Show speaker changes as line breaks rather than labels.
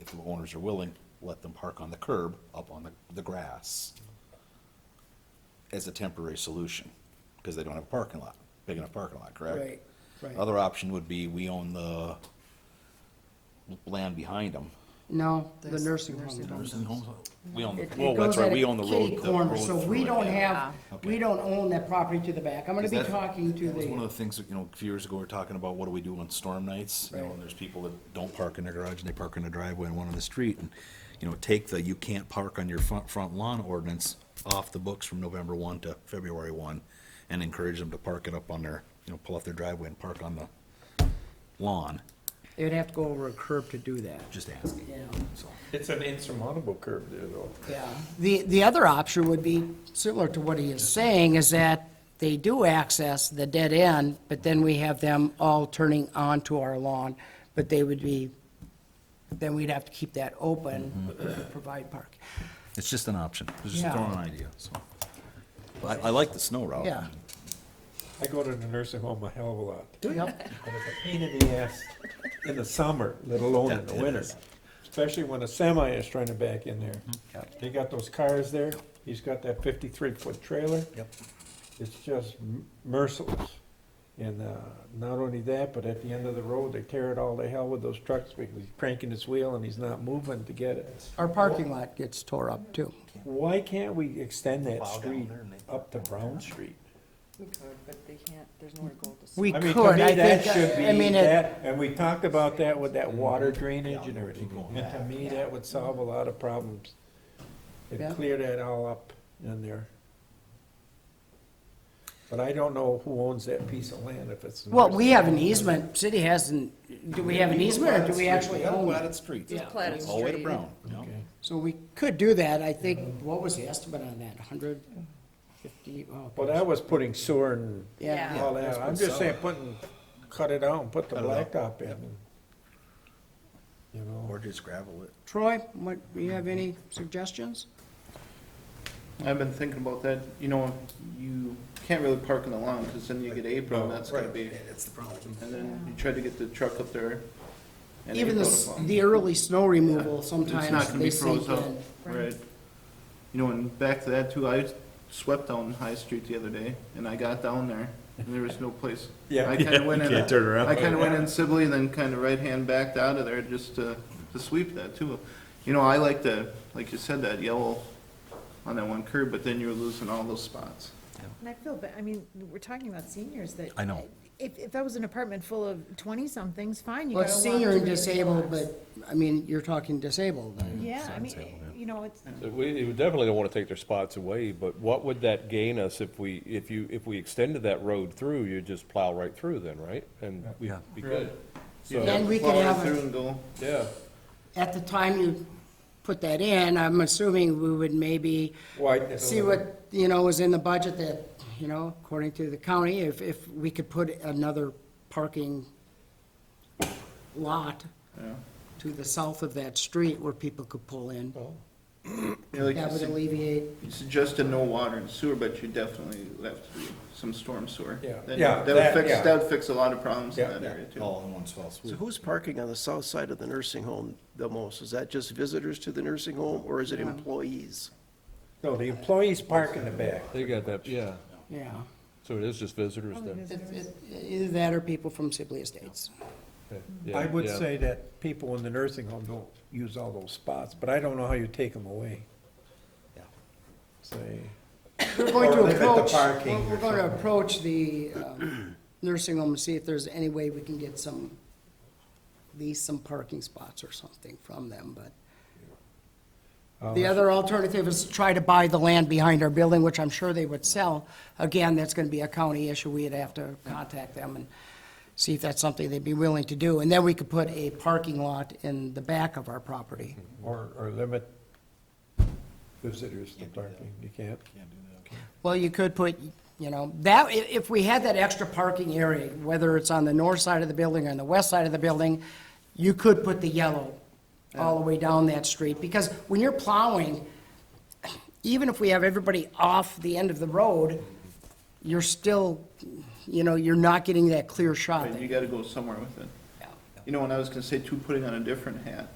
if the owners are willing, let them park on the curb, up on the, the grass as a temporary solution, because they don't have a parking lot, big enough parking lot, correct?
Right, right.
Other option would be we own the land behind them.
No, the
There's
nursing
nursing
home.
homes.
does.
We own, the
It- it
well, that's
goes at
right,
a
we own the road.
kitty
the
corner,
road
So we
through it.
don't have,
Okay.
we don't own that property to the back. I'm gonna be
Because that-
talking to
That was one of
the,
the things, that, you know, a few years ago, we were talking about what do we do on storm nights? You know,
Right.
and there's people that don't park in their garage and they park in the driveway and one on the street. And, you know, take the you can't park on your front, front lawn ordinance off the books from November one to February one and encourage them to park it up on their, you know, pull off their driveway and park on the lawn,
they'd have to go over a curb to do that.
just asking,
Yeah,
so.
It's an insurmountable curve there, though.
yeah. The, the other option would be similar to what he is saying, is that they do access the dead end, but then we have them all turning onto our lawn, but they would be, then we'd have to keep that open, to provide parking.
It's just an option, just
Yeah.
throwing an idea, so. I, I like the snow route.
Yeah.
I go to the nursing home a hell of a lot.
Yep,
And it's a pain in the ass in the summer, let alone in the
It
winter.
is.
Especially when a semi is trying to back in there. They got those cars there, he's got that fifty-three foot trailer.
Yep.
It's just m- merciless. And, uh, not only that, but at the end of the road, they tear it all to hell with those trucks because he's cranking his wheel and he's not moving to get it.
our parking lot gets tore up too.
Why can't we extend that
Plow down
street
there and they-
up to Brown Street?
We could, but they can't, there's nowhere to go.
We
I mean,
could,
to me,
I
that
think,
should
I
be
mean, it,
that, and we talked about that with that water drainage and
Yeah,
everything.
keep going
And to
back.
me, that would solve a lot of problems.
Yeah.
And clear that all up in there. But I don't know who owns that piece of land, if it's. the
well,
nurse-
we have an easement, city hasn't, do we have an easement or do we actually own it?
Platted streets.
Yeah.
Platted
All the way to
street.
Brown, yeah.
Okay.
So we could do that, I think, what was the estimate on that, hundred fifty? oh,
Well, that was putting sewer and
Yeah,
all
that's
that, I'm
what's
just saying,
solid.
putting, cut it out and put the
Cut it out.
blacktop in. and, You know,
Or just gravel it.
Troy, what, do you have any suggestions?
I've been thinking about that, you know, you can't really park in the lawn, because then you get April, and that's gonna be,
That's the problem.
and then you try to get the truck up there. and
Even the,
April to
s-
plow.
the early snow removal,
It's not
sometimes
gonna
they
be
sink
froze up,
in.
right? You know, and back to that too, I swept down High Street the other day, and I got down there, and there was no place.
Yeah.
I kinda went in,
can't turn around.
I kinda went in Sibley, and then kinda right hand backed out of there just to, to sweep that too. You know, I like the, like you said, that yellow on that one curb, but then you're losing all those spots.
And I feel, but, I mean, we're talking about seniors that.
I know.
If, if that was an apartment full of twenty-somethings, fine, you
Well,
gotta
it's
walk.
senior
to
and
the
disabled,
doors.
but, I mean, you're talking disabled then.
Yeah, I
Disabled,
mean, you know, it's,
We we definitely don't want to take their spots away, but what would that gain us if we, if you, if we extended that road through, you'd just plow right through then, right? And we'd
Yeah.
be good. So,
Then we could
Follow
have a-
through and go.
yeah,
At the time you put that in, I'm assuming we would maybe
widen it a
see
little.
what, you know, was in the budget that, you know, according to the county, if, if we could put another parking lot to the south of that street where people could pull in,
Yeah, like
that
you
would
said,
alleviate,
you suggested no water and sewer, but you definitely left some storm sewer.
Yeah.
Then
Yeah,
That
that-
would fix,
yeah.
that would fix a lot of problems in
Yeah,
that
yeah.
area too.
All in one fell swoop.
So who's parking on the south side of the nursing home the most? Is that just visitors to the nursing home, or is it employees?
No, the employees park in the back.
they got that, yeah.
yeah.
So it is just visitors then?
It- it- Either that or people from Sibley Estates.
Okay. Yeah,
I would
yeah.
say that people in the nursing home don't use all those spots, but I don't know how you take them away.
Yeah.
Say,
We're going to
Or limit the
approach,
parking
we're-
or
we're going to
something.
approach the um, nursing home and see if there's any way we can get some, lease some parking spots or something from them, but
Um,
The other alternative is to try to buy the land behind our building, which I'm sure they would sell. Again, that's gonna be a county issue, we'd have to contact them and see if that's something they'd be willing to do. And then we could put a parking lot in the back of our property.
or, or limit visitors to parking, you can't.
Well, you could put, you know, that, i- if we had that extra parking area, whether it's on the north side of the building or on the west side of the building, you could put the yellow all the way down that street, because when you're plowing, even if we have everybody off the end of the road, you're still, you know, you're not getting that clear shot.
Right,
that-
You gotta go somewhere with it.
Yeah.
You know, and I was gonna say too, putting on a different hat,